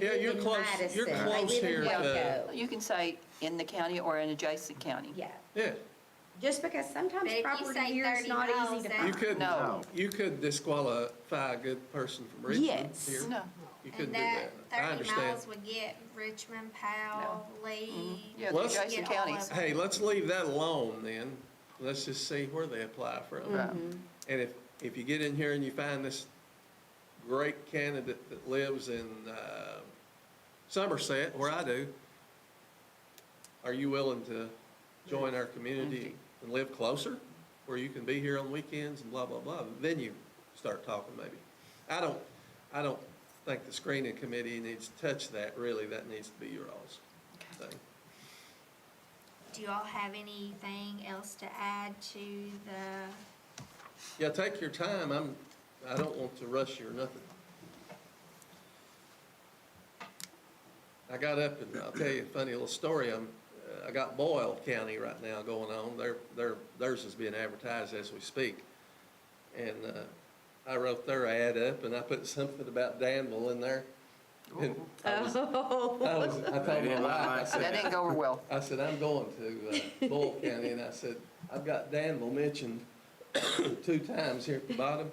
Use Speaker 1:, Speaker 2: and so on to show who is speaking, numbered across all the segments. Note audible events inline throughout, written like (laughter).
Speaker 1: Yeah,
Speaker 2: live
Speaker 1: you're
Speaker 2: in
Speaker 1: close-
Speaker 2: Madison.
Speaker 1: you're
Speaker 2: I
Speaker 1: close
Speaker 2: live in
Speaker 1: here to-
Speaker 2: Waco.
Speaker 3: You can say in the county or an adjacent county.
Speaker 2: Yeah,
Speaker 1: Yeah,
Speaker 2: just because sometimes
Speaker 4: But if you
Speaker 2: property
Speaker 4: say
Speaker 2: here is not easy to
Speaker 4: 30,000
Speaker 2: find.
Speaker 1: you could,
Speaker 3: No.
Speaker 1: you could disqualify a good person from Richmond
Speaker 2: Yes.
Speaker 1: here.
Speaker 3: No.
Speaker 1: You
Speaker 4: And
Speaker 1: couldn't do
Speaker 4: that
Speaker 1: that. I
Speaker 4: thirty
Speaker 1: understand.
Speaker 4: miles would get Richmond, Powell, Lee.
Speaker 3: Mm-hmm. Yeah, the
Speaker 1: Let's-
Speaker 3: adjacent
Speaker 4: Get all
Speaker 3: counties.
Speaker 4: of
Speaker 1: Hey, let's leave that alone then. Let's just see where they apply from.
Speaker 3: Right.
Speaker 1: And if, if you get in here and you find this great candidate that lives in uh, Somerset, where I do, are you willing to join our community and live closer? Where you can be here on weekends and blah, blah, blah? Then you start talking maybe. I don't, I don't think the screening committee needs to touch that really. That needs to be your all's thing.
Speaker 4: Do y'all have anything else to add to the,
Speaker 1: Yeah, take your time. I'm, I don't want to rush you or nothing. I got up and I'll tell you a funny little story. I'm, uh, I got Boyle County right now going on. Their, their, theirs is being advertised as we speak. And, uh, I wrote their ad up and I put something about Danville in there. And
Speaker 2: Oh.
Speaker 1: I was, I was, I told my wife, I said,
Speaker 3: That didn't go over well.
Speaker 1: I said, I'm going to uh, Bull County, and I said, I've got Danville mentioned (coughs) two times here at the bottom.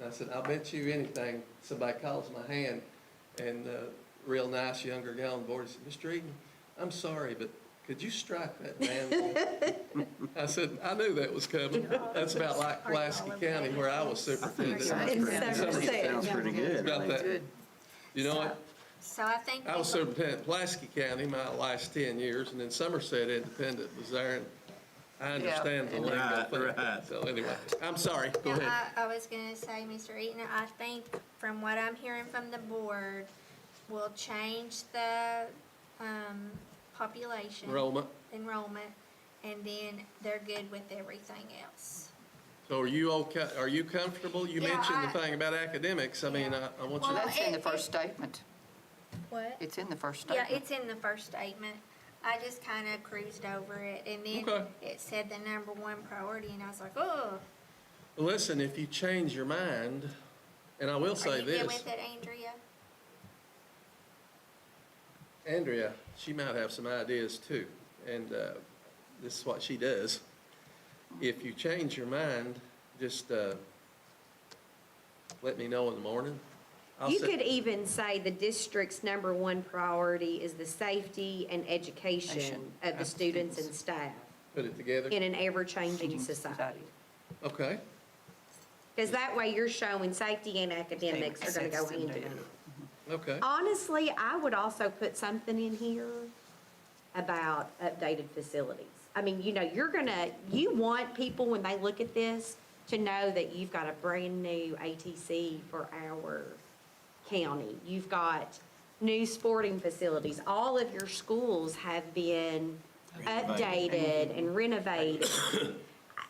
Speaker 1: And I said, I'll bet you anything, somebody calls my hand, and a real nice younger guy on board said, Mr. Eaton, I'm sorry, but could you strike that Danville? I said, I knew that was coming. That's about like Pulaski County where I was superintendent.
Speaker 5: Sounds pretty-
Speaker 2: Somerset.
Speaker 5: Sounds pretty good.
Speaker 1: About that. You know what?
Speaker 4: so I think.
Speaker 1: I was
Speaker 4: people-
Speaker 1: superintendent of Pulaski County my last ten years, and then Somerset Independent was there, and I understand the
Speaker 3: and-
Speaker 1: lingo thing.
Speaker 5: Right, right.
Speaker 1: So anyway, I'm sorry, go
Speaker 4: No,
Speaker 1: ahead.
Speaker 4: I, I was gonna say, Mr. Eaton, I think from what I'm hearing from the board, we'll change the, um, population.
Speaker 1: Enrollment,
Speaker 4: Enrollment, and then they're good with everything else.
Speaker 1: so are you okay, are you comfortable? You
Speaker 4: Yeah,
Speaker 1: mentioned the
Speaker 4: I-
Speaker 1: thing about academics, I mean, I, I want
Speaker 3: So
Speaker 1: you to,
Speaker 3: that's in the first statement.
Speaker 4: What?
Speaker 3: It's in the first
Speaker 4: Yeah,
Speaker 3: statement.
Speaker 4: it's in the first statement. I just kind of cruised over it, and then
Speaker 1: Okay.
Speaker 4: it said the number one priority, and I was like, oh.
Speaker 1: listen, if you change your mind, and I will
Speaker 4: Are
Speaker 1: say
Speaker 4: you good
Speaker 1: this,
Speaker 4: with it, Andrea?
Speaker 1: Andrea, she might have some ideas too, and, uh, this is what she does. If you change your mind, just, uh, let me know in the morning. I'll
Speaker 2: You
Speaker 1: sit-
Speaker 2: could even say the district's number one priority is the safety and education
Speaker 3: Education
Speaker 2: of the
Speaker 3: of
Speaker 2: students and
Speaker 3: students.
Speaker 2: staff
Speaker 1: Put it together?
Speaker 2: in an ever-changing
Speaker 3: Changing
Speaker 2: society.
Speaker 1: Okay,
Speaker 2: Because that way you're showing safety and academics are gonna go hand in hand.
Speaker 1: okay.
Speaker 2: Honestly, I would also put something in here about updated facilities. I mean, you know, you're gonna, you want people, when they look at this, to know that you've got a brand-new ATC for our county. You've got new sporting facilities. All of your schools have been updated and renovated.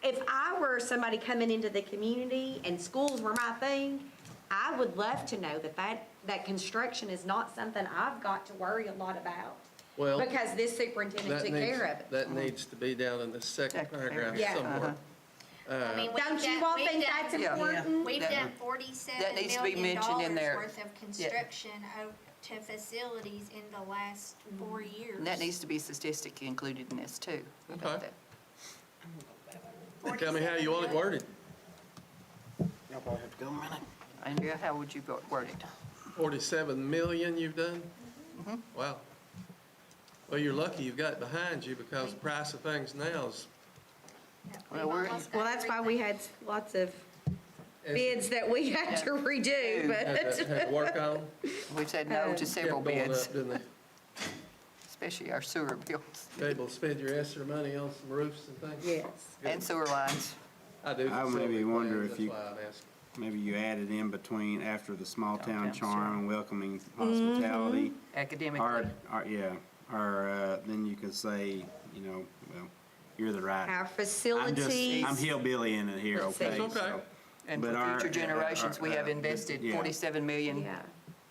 Speaker 2: If I were somebody coming into the community and schools were my thing, I would love to know that that, that construction is not something I've got to worry a lot about.
Speaker 1: Well,
Speaker 2: Because this superintendent
Speaker 1: That
Speaker 2: took
Speaker 1: needs,
Speaker 2: care of it.
Speaker 1: that needs to be down in the second
Speaker 3: Second
Speaker 1: paragraph
Speaker 2: paragraph. Yeah.
Speaker 1: somewhere. Uh,
Speaker 4: I mean, we've
Speaker 2: Don't
Speaker 4: done-
Speaker 2: you all
Speaker 4: we've
Speaker 2: think
Speaker 4: done- Mm-hmm.
Speaker 2: that's
Speaker 3: Yeah.
Speaker 2: important?
Speaker 4: We've
Speaker 3: That-
Speaker 4: done
Speaker 1: Mm-hmm.
Speaker 4: forty-seven
Speaker 3: that needs to be
Speaker 4: million
Speaker 3: mentioned
Speaker 4: dollars
Speaker 3: in there.
Speaker 4: worth of construction o- to facilities in the last four years.
Speaker 3: And Mm-hmm. that needs to be statistic included in this too. about
Speaker 1: Okay.
Speaker 3: that.
Speaker 2: Uh-huh.
Speaker 1: Tell me how you want it worded.
Speaker 5: Y'all probably have to go a minute.
Speaker 3: Andrea, how would you go- word it?
Speaker 1: Forty-seven million you've done?
Speaker 2: Mm-hmm.
Speaker 1: Wow. Well, you're lucky you've got it behind you because the price of things now is.
Speaker 3: Well, we're-
Speaker 2: Well, that's why we had lots of bids that we had to redo,
Speaker 1: Had to-
Speaker 2: but,
Speaker 1: had to work on.
Speaker 3: We've said no
Speaker 5: Um,
Speaker 3: to several
Speaker 1: Kept going
Speaker 3: bids,
Speaker 1: up, Didn't
Speaker 3: especially our sewer bills
Speaker 1: they? Able to spend your extra money on some roofs and things?
Speaker 2: yes.
Speaker 1: Good.
Speaker 3: and sewer lines.
Speaker 1: I do.
Speaker 5: I
Speaker 1: facility
Speaker 5: maybe wonder
Speaker 1: plans,
Speaker 5: if you-
Speaker 1: That's why I'm asking.
Speaker 5: Maybe you added in between after the small town
Speaker 3: Downtown charm.
Speaker 5: charm and welcoming hospitality.
Speaker 3: Mm-hmm.
Speaker 5: Or,
Speaker 3: Academically,
Speaker 5: or, yeah, or, uh, then you could say, you know, well, you're the
Speaker 2: Our
Speaker 5: right. I'm just,
Speaker 2: facilities.
Speaker 5: I'm hillbilly in it here,
Speaker 2: Let's see.
Speaker 5: okay?
Speaker 1: It's okay.
Speaker 5: so
Speaker 3: and
Speaker 5: but
Speaker 3: for
Speaker 5: our-
Speaker 3: future generations, we have
Speaker 5: our- uh,
Speaker 3: invested
Speaker 5: yeah.
Speaker 3: 47 million
Speaker 2: Yeah.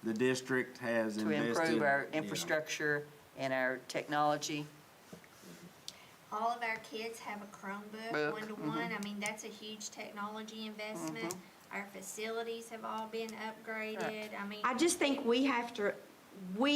Speaker 5: The district has
Speaker 3: to
Speaker 5: invested.
Speaker 3: improve our
Speaker 5: yeah.
Speaker 3: infrastructure and our technology.
Speaker 4: All of our kids have a Chromebook,
Speaker 3: Book, Mm-hmm.
Speaker 4: one-to-one. I mean, that's a huge technology investment. Our facilities have all been upgraded. I mean,
Speaker 2: I just think we have to, we